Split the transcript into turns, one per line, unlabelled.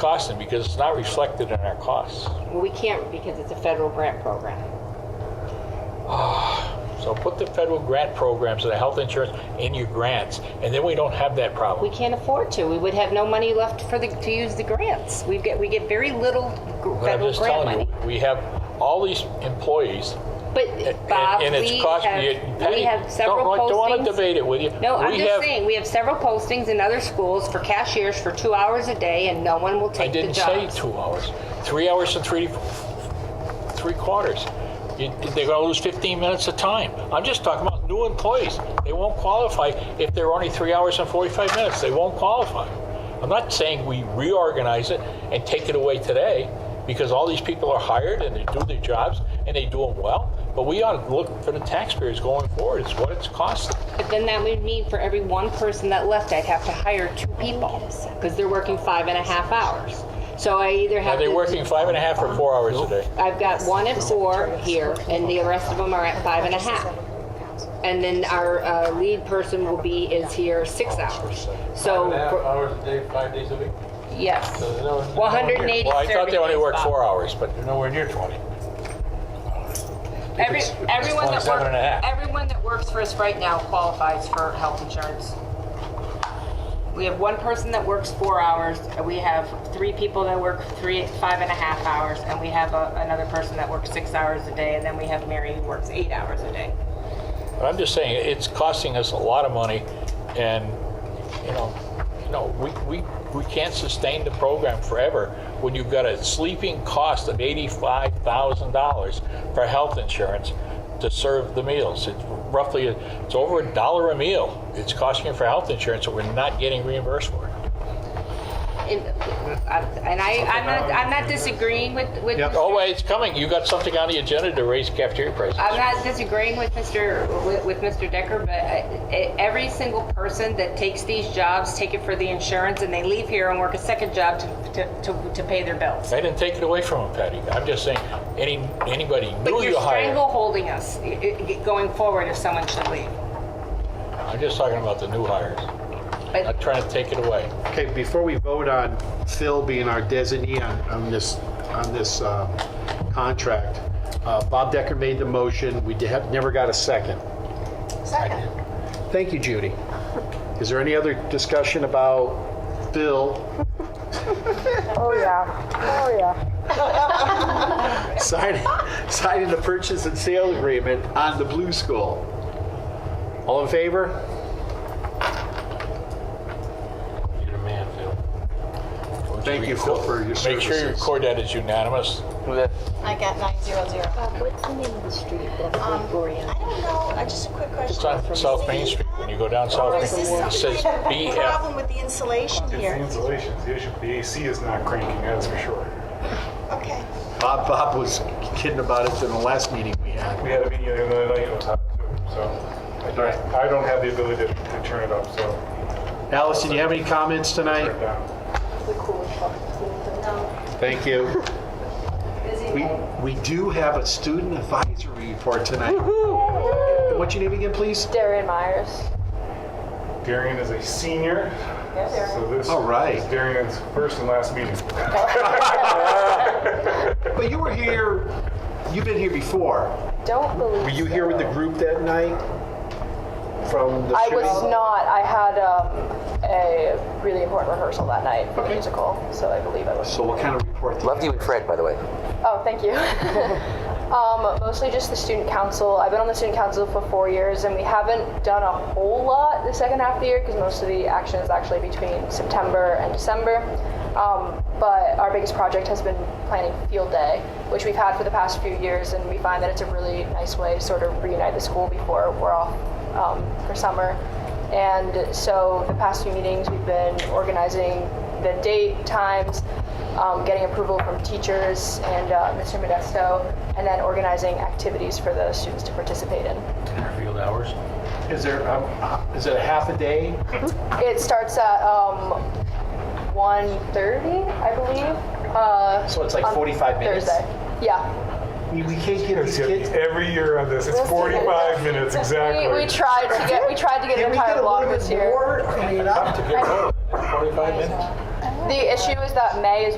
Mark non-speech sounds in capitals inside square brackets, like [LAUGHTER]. costing because it's not reflected in our costs.
We can't because it's a federal grant program.
So put the federal grant programs and the health insurance in your grants, and then we don't have that
We
problem.
can't afford to. We would have no money left for the, to use the grants. We get, we get very little gr-
But I'm
federal
just
grant
telling
money.
you, we have all these employees.
But Bob,
and, and it's
we
cost, you-
have,
Patty,
we have several
don't, Don't want to
postings.
debate it with you.
No, I'm
We
just
have-
saying, we have several postings in other schools for cashiers for two hours a day and no one will
I
take the
didn't
jobs.
say two hours, three hours and three, three quarters. You- They're gonna lose 15 minutes of time. I'm just talking about new employees. They won't qualify if they're only three hours and 45 minutes. They won't qualify. I'm not saying we reorganize it and take it away today because all these people are hired and they do their jobs and they do them well. But we ought to look for the taxpayers going forward. It's what it's costing.
But then that would mean for every one person that left, I'd have to hire two people because they're working five and a half hours. So I either have
Are they
to-
working five and a half or four hours a day?
I've got one at four here, and the rest of them are at five and a half. And then our uh, lead person will be, is here six hours. So,
Half
for-
hours a day, five days a week?
yes,
So no, it's-
180
Well, I thought they only
serving
worked
days,
four
Bob.
hours, but
You're nowhere near 20.
Every,
If it's- if it's
everyone that
27 and a
works,
half.
everyone that works for us right now qualifies for health insurance. We have one person that works four hours, and we have three people that work three, five and a half hours, and we have a- another person that works six hours a day, and then we have Mary who works eight hours a day.
But I'm just saying, it's costing us a lot of money, and, you know, no, we, we, we can't sustain the program forever when you've got a sleeping cost of $85,000 for health insurance to serve the meals. It's roughly, it's over a dollar a meal it's costing you for health insurance, that we're not getting reimbursed for it.
And uh, and I, I'm not, I'm not disagreeing with, with,
Yep.
Oh, wait, it's coming. You got something on the agenda to raise cafeteria prices.
I'm not disagreeing with Mr., with- with Mr. Decker, but I- every single person that takes these jobs, take it for the insurance, and they leave here and work a second job to, to, to to pay their bills.
I didn't take it away from him, Patty. I'm just saying, any, anybody
But
new
you're
you hire.
strangle holding us i- i- going forward if someone should leave.
I'm just talking about the new hires.
But
Not trying to take it away.
Okay, before we vote on Phil being our designee on, on this, on this, uh, contract, uh, Bob Decker made the motion, we did have, never got a second.
Second.
Thank you, Judy. Is there any other discussion about Phil
Oh, yeah. Oh,
[LAUGHS]
yeah.
signing, signing the purchase and sale agreement on the Blue School? All in favor?
You're the man, Phil.
Thank you, Phil, for your services.
Make sure you record that as unanimous.
I got 900.
Bob, Uh, what's the name of the street that
Um, I don't know, I just a quick question.
It's on South Main Street. When you go down South Main,
Is this
it
some
says
kind of
BF.
problem with the insulation
It's the
here?
insulation's the issue. The AC is not cranking, that's for sure.
Okay.
Bob, Bob was kidding about it in the last meeting we had.
We had a meeting the other night on top too, so I don't- I don't have the ability to to turn it up, so
Allison, you have any comments
turn it
tonight?
down.
Thank you. We, we do have a student advisory report tonight. What's your name again, please?
Darian Myers.
Darian is a senior, so this
All right.
is Darian's first and last meeting.
But you were here, you've been here before.
Don't believe.
Were you here with the group that night? From the
I
shooting?
was not. I had um, a really important rehearsal that night for the musical, so I believe I was.
So what kind of report?
Loved you and Fred, by the way.
Oh, thank you. [LAUGHS] um, mostly just the student council. I've been on the student council for four years, and we haven't done a whole lot the second half of the year because most of the action is actually between September and December. Um, but our biggest project has been planning field day, which we've had for the past few years, and we find that it's a really nice way to sort of reunite the school before we're off um, for summer. And so the past few meetings, we've been organizing the date, times, um, getting approval from teachers and uh, Mr. Modesto, and then organizing activities for the students to participate in.
Field hours?
Is there, um, uh, is it a half a day?
It starts at um, 1.30, I believe. Uh,
So it's like
on
45 minutes?
Thursday. Yeah.
We we can't get these kids.
Every year on this, it's 45 minutes exactly.
We, we tried to get we tried to get an
Can we get
entire
a
block
little
this
bit
year.
more? I mean, I'm-
Forty-five minutes.
The issue is that May is